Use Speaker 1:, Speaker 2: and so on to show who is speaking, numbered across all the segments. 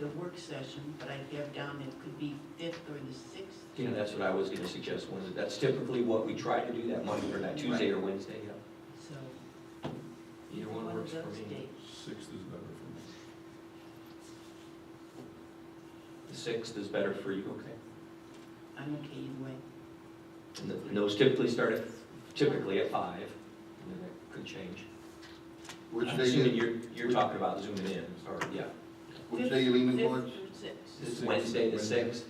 Speaker 1: the work session, but I have down it could be fifth or the sixth.
Speaker 2: You know, that's what I was gonna suggest, Wednesday. That's typically what we try to do, that Monday or that Tuesday or Wednesday, yeah.
Speaker 1: So
Speaker 2: Either
Speaker 1: one
Speaker 2: one
Speaker 1: of
Speaker 2: works for
Speaker 1: those
Speaker 2: me.
Speaker 1: dates.
Speaker 3: Sixth is better for me.
Speaker 2: The sixth is better for you, okay.
Speaker 1: I'm okay either way.
Speaker 2: And the- and those typically start at, typically at five, and then that could change.
Speaker 4: Which
Speaker 2: I'm
Speaker 4: day
Speaker 2: assuming
Speaker 4: you,
Speaker 2: you're, you're talking about zooming in, or, yeah.
Speaker 4: which day you leaning
Speaker 1: Fifth
Speaker 4: towards?
Speaker 1: or sixth.
Speaker 2: This is Wednesday, the
Speaker 3: Wednesday.
Speaker 2: sixth.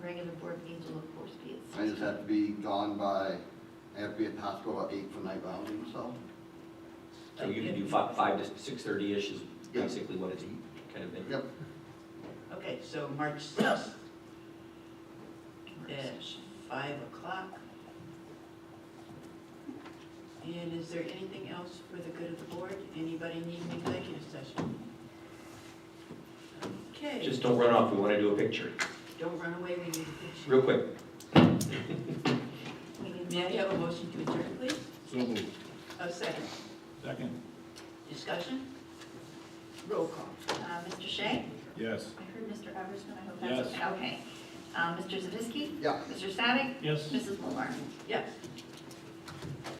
Speaker 5: The regular board meeting will of course be at
Speaker 4: I
Speaker 5: six.
Speaker 4: just have to be gone by, I have to be at the hospital at eight for night rounding, so.
Speaker 2: So you can do five, five to six-thirty-ish is
Speaker 4: Yeah.
Speaker 2: basically what it's kind of been.
Speaker 4: Yep,
Speaker 1: Okay, so March sixth
Speaker 5: Work
Speaker 1: at
Speaker 5: session.
Speaker 1: five o'clock. And is there anything else for the good of the board? Anybody need an executive session? Okay.
Speaker 2: Just don't run off, we wanna do a picture,
Speaker 1: Don't run away, we need a picture.
Speaker 2: real quick.
Speaker 5: We need a
Speaker 1: May I
Speaker 5: motion.
Speaker 1: have a motion to adjourn, please?
Speaker 3: So moved.
Speaker 1: A second.
Speaker 3: Second.
Speaker 1: Discussion? Roll call.
Speaker 5: Uh, Mr. Shea?
Speaker 3: Yes.
Speaker 5: I heard Mr. Eversman, I hope
Speaker 3: Yes.
Speaker 5: that's okay. Okay. Uh, Mr. Zavisky?
Speaker 4: yeah.
Speaker 5: Mr. Savick?
Speaker 3: Yes.
Speaker 5: Mrs. Mulbar?
Speaker 1: Yes.